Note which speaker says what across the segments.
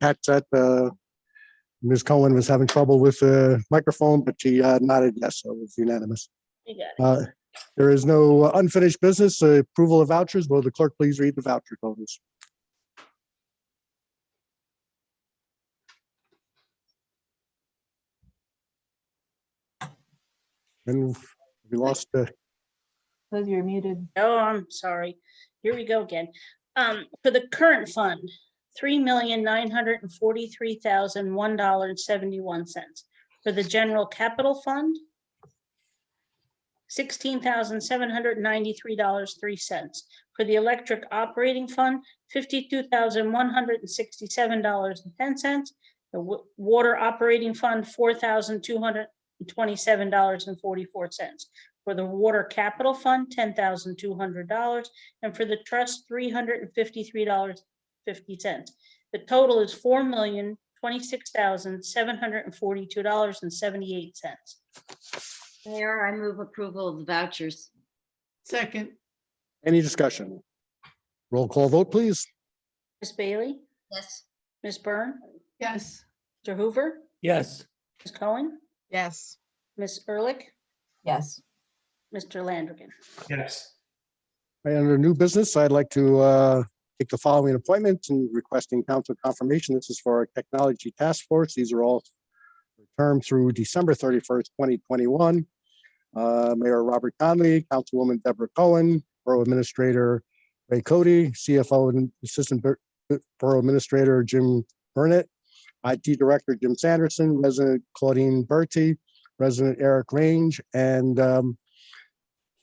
Speaker 1: Pat said, uh, Ms. Cohen was having trouble with the microphone, but she uh, nodded yes, so it was unanimous.
Speaker 2: You got it.
Speaker 1: Uh, There is no unfinished business, uh, approval of vouchers. Will the clerk please read the voucher totals? And we lost, uh,
Speaker 3: Liz, you're muted.
Speaker 2: Oh, I'm sorry. Here we go again. Um, for the current fund, three million nine hundred and forty-three thousand one dollar and seventy-one cents. For the general capital fund, sixteen thousand seven hundred and ninety-three dollars, three cents. For the electric operating fund, fifty-two thousand one hundred and sixty-seven dollars and ten cents. The wa- water operating fund, four thousand two hundred and twenty-seven dollars and forty-four cents for the water capital fund, ten thousand two hundred dollars, and for the trust, three hundred and fifty-three dollars fifty cents. The total is four million twenty-six thousand seven hundred and forty-two dollars and seventy-eight cents.
Speaker 4: Mayor, I move approval of the vouchers.
Speaker 5: Second,
Speaker 1: any discussion? Roll call vote, please.
Speaker 2: Ms. Bailey,
Speaker 4: Yes.
Speaker 2: Ms. Byrne,
Speaker 5: yes.
Speaker 2: Mr. Hoover,
Speaker 5: Yes.
Speaker 2: Ms. Cohen,
Speaker 6: yes,
Speaker 2: Ms. Ehrlich,
Speaker 3: Yes,
Speaker 2: Mr. Landrigan.
Speaker 7: yes,
Speaker 1: Right, Under new business, I'd like to uh, take the following appointments and requesting council confirmation. This is for our technology task force. These are all term through December thirty-first, twenty twenty-one. Uh, Mayor Robert Conley, Councilwoman Deborah Cohen, Borough Administrator Ray Cody, CFO and Assistant Bur- Borough Administrator Jim Burnett, IT Director Jim Sanderson, Resident Claudine Bertie, Resident Eric Range, and um,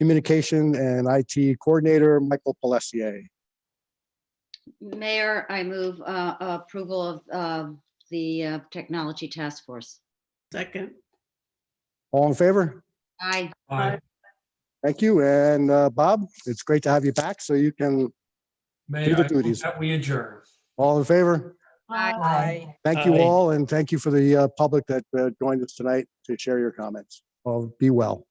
Speaker 1: Communication and IT Coordinator, Michael Pelessier.
Speaker 4: Mayor, I move uh, approval of uh, the uh, Technology Task Force.
Speaker 5: Second,
Speaker 1: All in favor?
Speaker 4: Aye.
Speaker 7: aye.
Speaker 1: Thank you. And uh, Bob, it's great to have you back. So you can,
Speaker 7: May
Speaker 1: Do the
Speaker 7: I move
Speaker 1: duties.
Speaker 7: that we adjourn?
Speaker 1: all in favor?
Speaker 4: Aye.
Speaker 3: Aye.
Speaker 1: Thank you
Speaker 7: Aye.
Speaker 1: all, and thank you for the uh, public that uh, joined us tonight to share your comments. Well, be well.